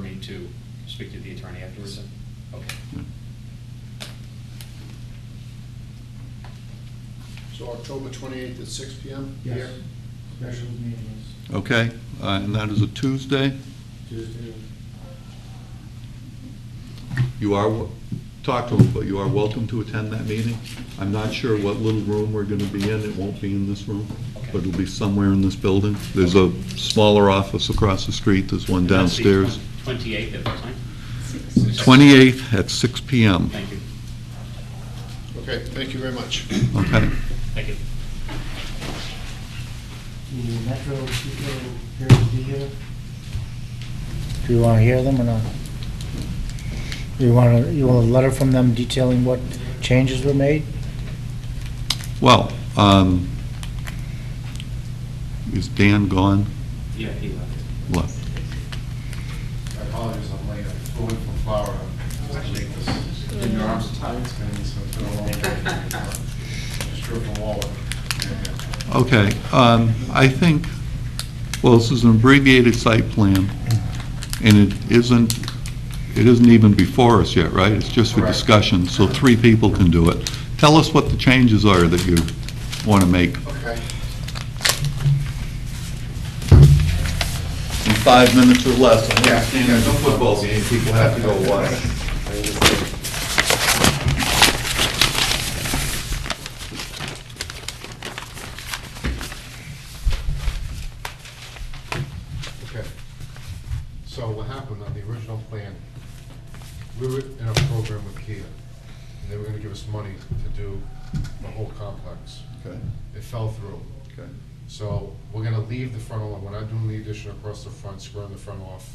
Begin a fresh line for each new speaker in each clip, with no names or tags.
need to speak to the attorney afterwards? then? Okay.
So October 28th at six PM?
Yes,
here?
special meetings,
Okay, uh, and that is a Tuesday?
Tuesday,
You are, wel- talk to them, but you are welcome to attend that meeting. I'm not sure what little room we're gonna be in, it won't be in this room, but it'll be somewhere in this building. There's a smaller office across the street, there's one
And that's the
downstairs.
Twenty-eighth at what time?
Twenty-eighth at six P M,
Thank you,
Okay, thank you very much.
okay?
thank you.
the Metro people appear to be here. Do you want to hear them or not? You want to, you want a letter from them detailing what changes were made?
Well, um, is Dan gone?
Yeah, he left.
Left.
I apologize, I'm late, I'm going from Florida. Just make this- Your arms are tired, it's been, so it's been a long day. Just drove from Warwick.
Okay, um, I think, well, this is an abbreviated site plan, and it isn't, it isn't even before us yet, right? It's just for
Correct.
discussion, so three people can do it. Tell us what the changes are that you want to make
Okay.
in five minutes or less. I
Yeah,
understand
yeah,
there's a
no
football game, people have to go watch.
Okay. So what happened on the original plan, we were in a program with Kia, and they were gonna give us money to do the whole complex.
Okay,
It fell through.
okay.
So we're gonna leave the frontal, we're not doing the addition across the front, squaring the front off,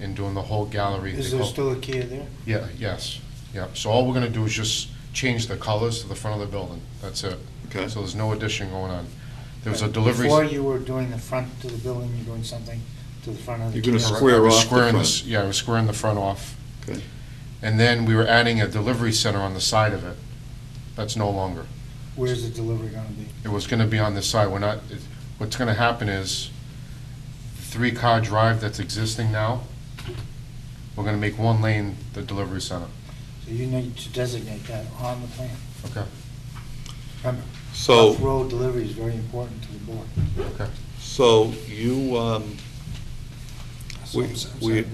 and doing the whole gallery.
Is
They
there
call-
still a key there?
Yeah, yes, yeah. So all we're gonna do is just change the colors to the front of the building, that's it.
Okay.
So there's no addition going on. There was a delivery.
Before you were doing the front to the building, you're doing something to the front of the.
You're gonna
key.
square-
I was
off the
squaring
front.
this- Yeah, I was squaring the front off.
Okay.
And then we were adding a delivery center on the side of it. That's no longer.
Where's the delivery going to be?
It was gonna be on this side, we're not, it- what's gonna happen is, the three-car drive that's existing now, we're gonna make one lane the delivery center.
So you need to designate that on the plan.
Okay.
Remember,
So.
Off-road delivery is very important to the board.
Okay.
So you, um,
So
we,
I'm s- I'm sorry,
we,
Greg.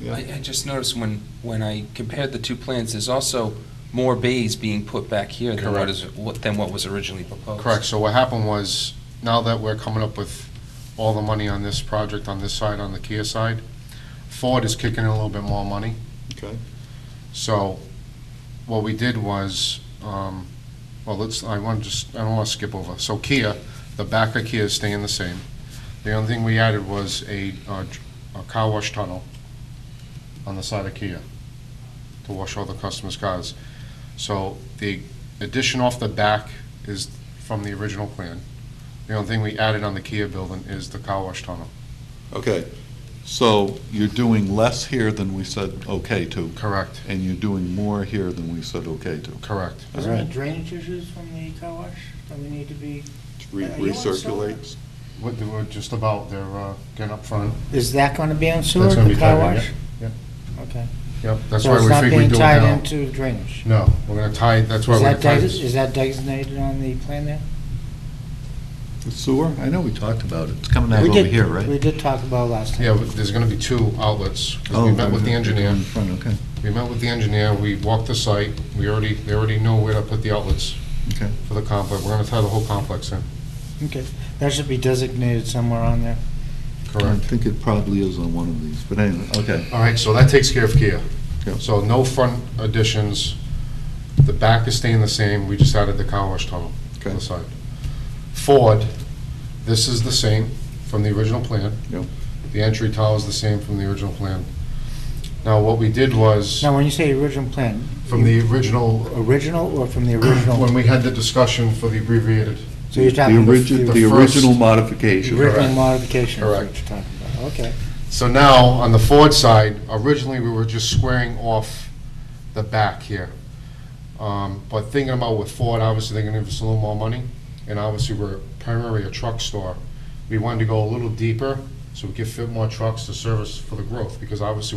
yeah.
I, I just noticed when, when I compared the two plans, there's also more bays being put back here than what
Correct.
is, what- than what was originally proposed.
Correct, so what happened was, now that we're coming up with all the money on this project, on this side, on the Kia side, Ford is kicking in a little bit more money.
okay,
So what we did was, um, well, let's, I want to just, I don't want to skip over. So Kia, the back of Kia is staying the same. The only thing we added was a, uh, dr- a car wash tunnel on the side of Kia to wash all the customers' cars. So the addition off the back is from the original plan. The only thing we added on the Kia building is the car wash tunnel.
okay. So you're doing less here than we said okay to.
Correct.
And you're doing more here than we said okay to.
Correct.
Is there any drainage issues from the car wash that we need to be?
Re-
Are you on solar?
Recirculates.
What they were just about, they're uh, getting up front.
Is that going to be on sewer,
That's gonna
the
be
car
tied in,
wash?
yeah,
Okay.
Yep, that's
So
why
it's
we
not
figured we'd
being
do it
tied
now.
into drainage?
No, we're gonna tie, that's why
Is
we're
that
gonna tie
desi-
this.
is that designated on the plan there?
The sewer, I know we talked about it, it's coming out
We
over
did-
here,
We
right?
did talk about it last time.
Yeah, but there's gonna be two outlets. 'cause
Oh,
We met with the
they're
engineer,
in front, Okay,
we met with the engineer, we walked the site, we already, they already know where to put the outlets
okay.
for the complex. We're gonna tie the whole complex in.
Okay, that should be designated somewhere on there.
I
Correct.
think it probably is on one of these, but anyway, okay.
All right, so that takes care of Kia.
Mm. Yep.
So no front additions, the back is staying the same, we just added the car wash tunnel to the
Okay.
side. Ford, this is the same from the original plan.
Yep.
The entry tile is the same from the original plan. Now, what we did was,
Now, when you say original plan,
from the original,
original or from the original?
when we had the discussion for the abbreviated,
So you're
The
talking the
origi-
f-
The
first-
original modification.
the original
Correct.
modification is what you're
Correct.
talking about, okay.
So now, on the Ford side, originally, we were just squaring off the back here. Um, But thinking about with Ford, obviously, they're gonna give us a little more money, and obviously, we're primarily a truck store. We wanted to go a little deeper, so we could fit more trucks to service for the growth, because obviously,